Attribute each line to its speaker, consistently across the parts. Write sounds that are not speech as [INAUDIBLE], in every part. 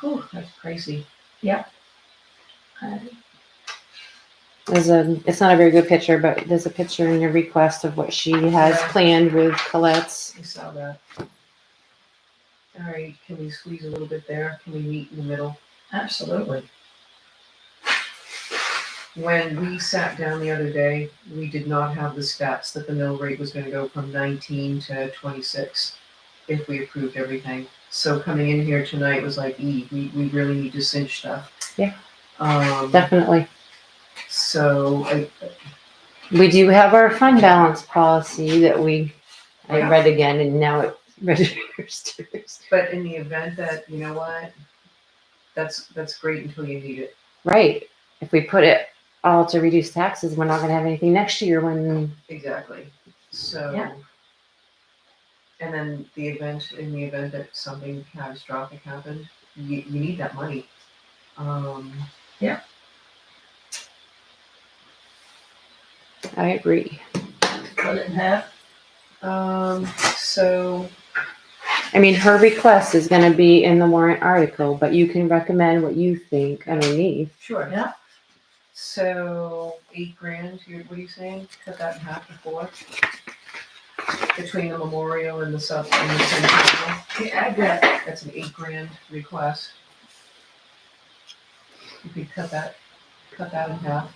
Speaker 1: Whew, that's crazy.
Speaker 2: Yep.
Speaker 1: Uh,
Speaker 3: There's a, it's not a very good picture, but there's a picture in your request of what she has
Speaker 1: Yeah.
Speaker 3: planned with Colette's.
Speaker 1: I saw that. All right, can we squeeze a little bit there? Can we meet in the middle?
Speaker 2: Absolutely.
Speaker 1: When we sat down the other day, we did not have the stats that the mill rate was gonna go from nineteen to twenty-six if we approved everything. So coming in here tonight was like, ee, we, we really need to cinch stuff.
Speaker 3: Yeah.
Speaker 1: Um,
Speaker 3: Definitely.
Speaker 1: so I,
Speaker 3: We do have our fund balance policy that we, I
Speaker 1: Yeah.
Speaker 3: read again and now it [LAUGHS] registers.
Speaker 1: But in the event that, you know what, that's, that's great until you need it.
Speaker 3: Right. If we put it all to reduce taxes, we're not gonna have anything next year when,
Speaker 1: Exactly. So.
Speaker 2: Yeah.
Speaker 1: And then the event, in the event that something catastrophic happened, you, you need that money. Um,
Speaker 3: I agree.
Speaker 2: Cut it in half.
Speaker 1: um, so,
Speaker 3: I mean, her request is gonna be in the warrant article, but you can recommend what you think underneath.
Speaker 1: sure.
Speaker 2: Yeah.
Speaker 1: So eight grand, you're, what are you saying? Cut that in half to four? Between the memorial and the sub, and the centennial,
Speaker 2: Yeah, I got it.
Speaker 1: that's an eight grand request. You could cut that, cut that in half.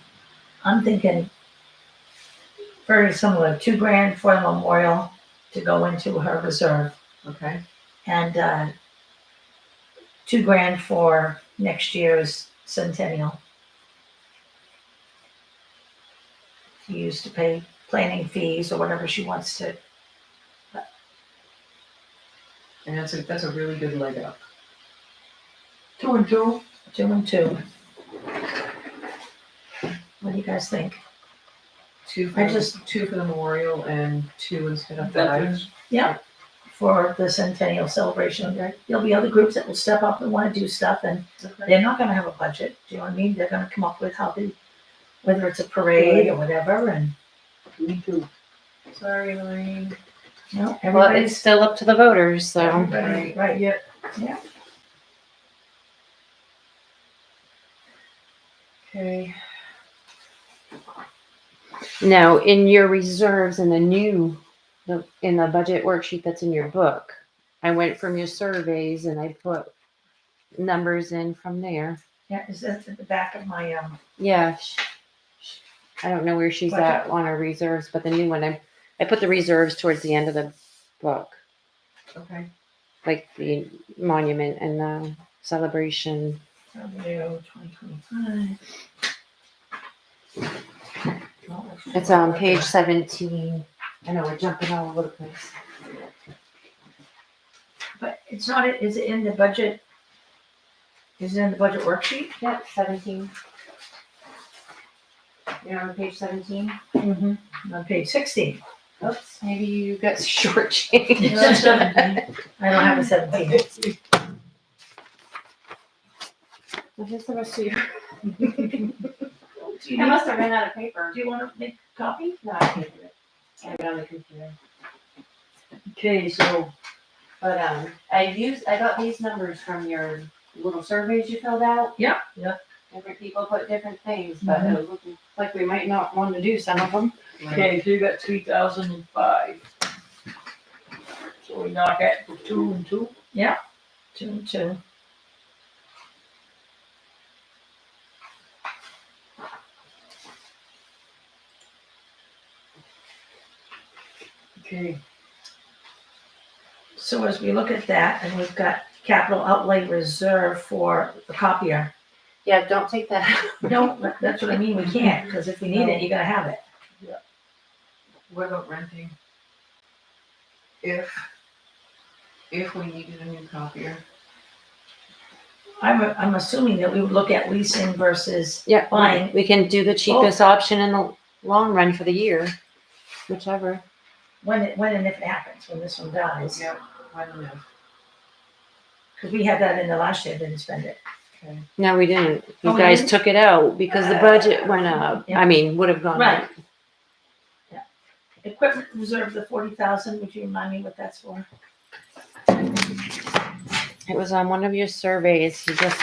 Speaker 2: I'm thinking very similar, two grand for the memorial to go into her reserve
Speaker 1: Okay,
Speaker 2: and, uh, two grand for next year's centennial. To use to pay planning fees or whatever she wants to.
Speaker 1: and that's a, that's a really good leg up.
Speaker 2: Two and two. Two and two. What do you guys think?
Speaker 1: Two for,
Speaker 2: I
Speaker 1: just
Speaker 2: just-
Speaker 1: two for the memorial and two instead of five.
Speaker 2: for the centennial celebration. There- There'll be other groups that will step up and want to do stuff, and they're not gonna have a budget, do you know what I mean? They're gonna come up with how they, whether it's a parade or whatever, and,
Speaker 1: Me too. Sorry, Lorraine.
Speaker 2: you know,
Speaker 3: Well, it's
Speaker 2: everybody's.
Speaker 3: still up to the voters, so.
Speaker 2: Right, right,
Speaker 1: Yep.
Speaker 2: Yeah.
Speaker 1: Okay,
Speaker 3: Now, in your reserves in the new, the- in the budget worksheet that's in your book, I went from your surveys and I put numbers in from there.
Speaker 2: yeah, is that at the back of my, um,
Speaker 3: Yeah. sh- sh- I don't know where she's at on her reserves, but the new one, I, I put the reserves towards the end of the book,
Speaker 1: okay,
Speaker 3: like the monument and the celebration.
Speaker 2: W twenty twenty-five?
Speaker 3: It's on page seventeen. I know we're jumping all over the place.
Speaker 2: But it's not, is it in the budget? Is it in the budget worksheet?
Speaker 3: Yep, seventeen. You're on page seventeen?
Speaker 2: Mm-hmm. On page sixteen.
Speaker 3: [LAUGHS] Oops, maybe you got [LAUGHS] shortchanged.
Speaker 2: No,
Speaker 3: [LAUGHS]
Speaker 2: it's seventeen. I don't have a seventeen.
Speaker 3: Well, Here's the rest of your.
Speaker 2: Do you
Speaker 3: I
Speaker 2: need-
Speaker 3: must have ran out of paper.
Speaker 2: do you wanna make a copy?
Speaker 3: No, I can't do it. I have it on the computer.
Speaker 2: Okay, so.
Speaker 3: But, um, I used, I got these numbers from your little surveys you filled out.
Speaker 2: Yeah, yeah.
Speaker 3: Different people put different things, but it looked like we might not want to do some of them.
Speaker 1: right,
Speaker 4: Okay, so you got three thousand and five. So we knock at the two and two,
Speaker 2: Two and two.
Speaker 4: okay,
Speaker 2: So as we look at that, and we've got capital outlay reserve for the copier.
Speaker 3: Yeah, don't take that.
Speaker 2: No, that- that's what I mean, we can't, cause if we need it, you gotta have it.
Speaker 1: what about renting? If, if we needed a new copier,
Speaker 2: I'm, I'm assuming that we would look at leasing versus
Speaker 3: Yeah,
Speaker 2: Fine.
Speaker 3: we can do the cheapest option in the long run for the year, whichever.
Speaker 2: when, it when and if it happens, when this one dies.
Speaker 1: yeah, I don't know,
Speaker 2: Cause we had that in the last year, didn't spend it.
Speaker 1: okay.
Speaker 3: No, we didn't.
Speaker 2: Oh,
Speaker 3: You
Speaker 2: we
Speaker 3: guys
Speaker 2: didn't?
Speaker 3: took it out because the budget went up.
Speaker 2: Yeah.
Speaker 3: I mean, would have gone up.
Speaker 2: Equipment reserve, the forty thousand, would you remind me what that's for?
Speaker 3: It was on one of your surveys, you just